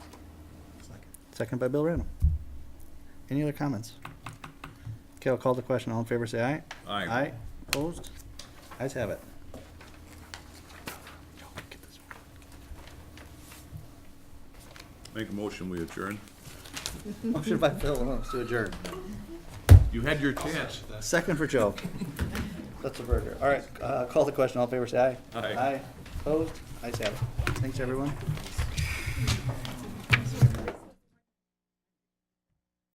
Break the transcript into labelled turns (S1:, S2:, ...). S1: Second by Bill Randall. Any other comments? Okay, I'll call the question. All in favor, say aye.
S2: Aye.
S1: Aye, opposed? Ayes have it.
S2: Make a motion, we adjourn.
S1: Motion by Bill Williams to adjourn.
S2: You had your chance.
S1: Second for Joe. That's a burger. All right, uh, call the question. All in favor, say aye.
S2: Aye.
S1: Aye, opposed? Ayes have it. Thanks, everyone.